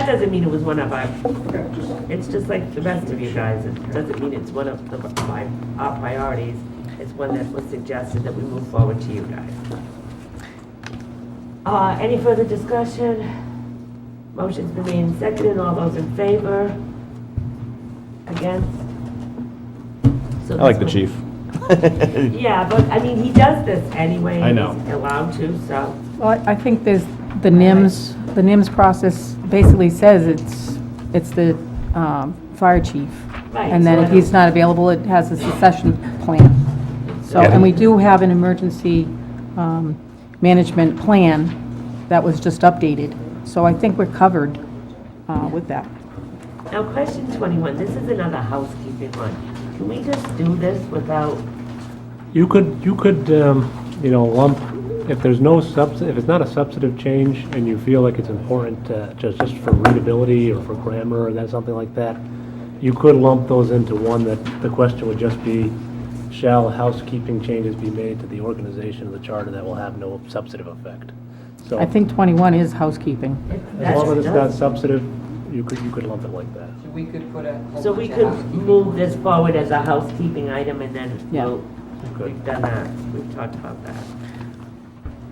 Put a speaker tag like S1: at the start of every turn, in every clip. S1: that doesn't mean it was one of our,
S2: Okay, just,
S1: it's just like the rest of you guys, it doesn't mean it's one of the, my, our priorities. It's one that was suggested that we move forward to you guys. Uh, any further discussion? Motion's been made and seconded, all those in favor? Against? So
S3: I like
S1: this
S3: the
S1: one-
S3: chief.
S1: Yeah, but I mean, he does this anyway.
S3: I know.
S1: He's allowed to, so.
S4: Well, I- I think there's, the NIMS, the NIMS process basically says it's, it's the um, fire chief.
S1: Right,
S4: And then
S1: so I
S4: if he's
S1: don't-
S4: not available, it has a succession plan. So, and we do have an emergency um, management plan that was just updated. So I think we're covered uh, with that.
S1: Now, question 21, this is another housekeeping one. Can we just do this without,
S5: You could, you could, um, you know, lump, if there's no subs, if it's not a substantive change and you feel like it's important, uh, just, just for readability or for grammar or that, something like that, you could lump those into one that the question would just be, shall housekeeping changes be made to the organization of the charter that will have no substantive effect? So
S4: I
S5: as
S4: think 21 is housekeeping.
S1: that's
S5: long as it's not
S1: done?
S5: substantive, you could, you could lump it like that.
S6: So we could put a. whole
S1: So we
S6: bunch of
S1: could
S6: housekeeping
S1: move
S6: ones.
S1: this forward as a housekeeping item and then
S4: Yeah.
S1: we'll,
S5: Good.
S1: we've done that, we've talked about that.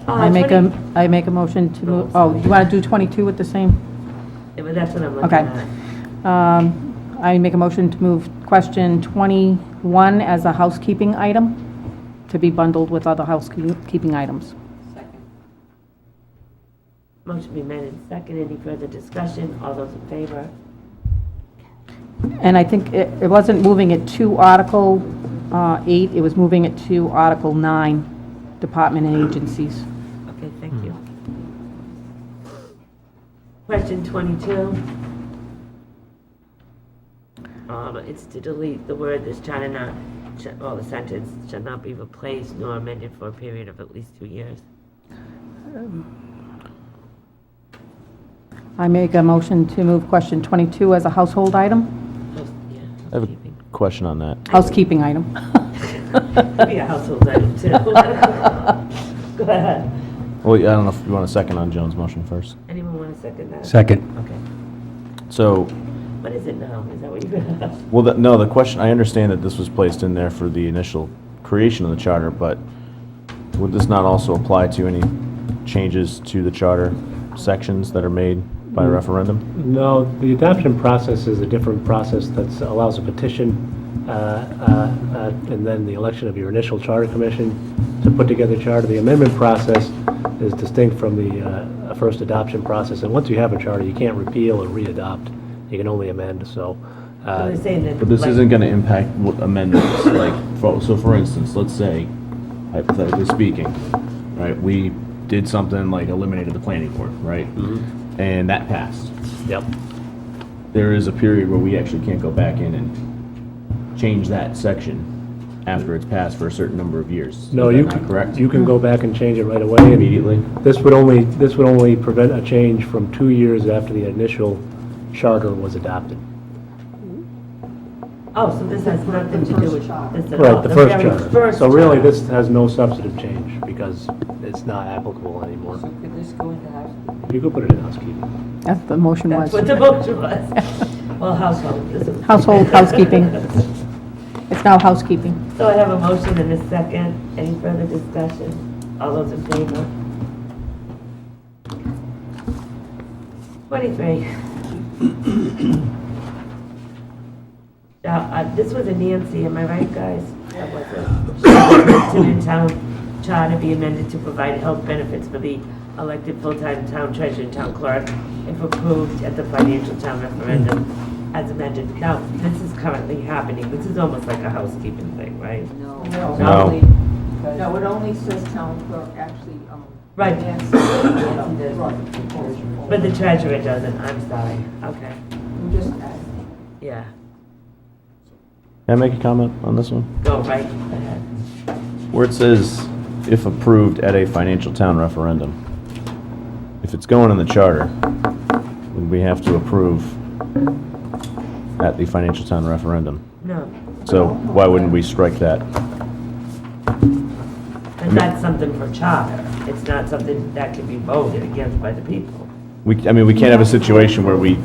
S4: I
S1: Uh,
S4: make a,
S1: 20
S4: I make a motion to move,
S1: Oh,
S4: oh,
S1: sorry.
S4: you want to do 22 with the same?
S1: Yeah, but That's what I'm looking
S4: Okay.
S1: at.
S4: Um, I make a motion to move question 21 as a housekeeping item, to be bundled with other housekeeping items.
S6: Second.
S1: Motion be made and second, any further discussion, all those in favor?
S4: And I think it it wasn't moving it to Article uh, 8, it was moving it to Article 9, Department and Agencies.
S1: Okay, thank you.
S3: Hmm.
S1: Question 22. Um, It's to delete the word "this shall not," sh- well, the sentence "shall not be replaced nor amended for a period of at least two years."
S4: I make a motion to move question 22 as a household item,
S1: House- yeah,
S3: I have a
S1: housekeeping.
S3: question on that.
S4: housekeeping item.
S1: Could be a household item, too. Go ahead.
S3: Well, I don't know if you want a second on Joan's motion first.
S1: Anyone want to second that?
S5: Second.
S1: Okay.
S3: So,
S1: What is it now? Is that what you're going to ask?
S3: well, the- no, the question, I understand that this was placed in there for the initial creation of the charter, but would this not also apply to any changes to the charter sections that are made by
S5: Mm.
S3: referendum?
S5: No, the adoption process is a different process that allows a petition, uh, uh, uh, and then the election of your initial charter commission to put together charter. The amendment process is distinct from the uh, first adoption process, and once you have a charter, you can't repeal or re-adopt. You can only amend, so. uh,
S1: So they're saying that,
S3: But this
S1: like-
S3: isn't going to impact what amendments, like, for- so for instance, let's say, hypothetically speaking, right, we did something like eliminated the planning board, right?
S5: Mm-hmm.
S3: And that passed.
S5: Yep.
S3: there is a period where we actually can't go back in and change that section after it's passed for a certain number of years.
S5: No,
S3: Is
S5: you
S3: that not
S5: can,
S3: correct?
S5: you can go back and change it right away. and
S3: Immediately?
S5: This would only, this would only prevent a change from two years after the initial charter was adopted.
S1: Oh, so this has nothing to do with this at all?
S5: Right, the first
S1: very
S5: charter.
S1: first
S5: So really,
S1: charter.
S5: this has no substantive change because it's not applicable anymore.
S6: So could this go into housekeeping?
S5: You could put it in housekeeping.
S4: That's the motion
S1: That's
S4: was.
S1: what the motion was. Well, household. this is-
S4: Household housekeeping. It's now housekeeping.
S1: So I have a motion and a second. Any further discussion? All those in favor? Twenty-three. Now, uh, this was a Nancy, am I right, guys? That was a, to the town charter be amended to provide health benefits for the elected full-time town treasurer and town clerk if approved at the financial town referendum as amended. Now, this is currently happening, this is almost like a housekeeping thing, right?
S6: No.
S7: No.
S3: No.
S6: Only because-
S7: No, it only says town clerk actually, um.
S1: Right.
S7: Nancy
S6: Nancy does.
S7: Right.
S1: But the treasurer doesn't, I'm sorry, okay,
S7: I'm just asking.
S1: yeah,
S3: Can I make a comment on this one?
S1: go right ahead.
S3: Where it says, if approved at a financial town referendum, if it's going in the charter, then we have to approve at the financial town referendum.
S1: No,
S3: So why wouldn't we strike that?
S1: and that's something for charter, it's not something that can be voted against by the people.
S3: We, I mean, we can't have a situation where we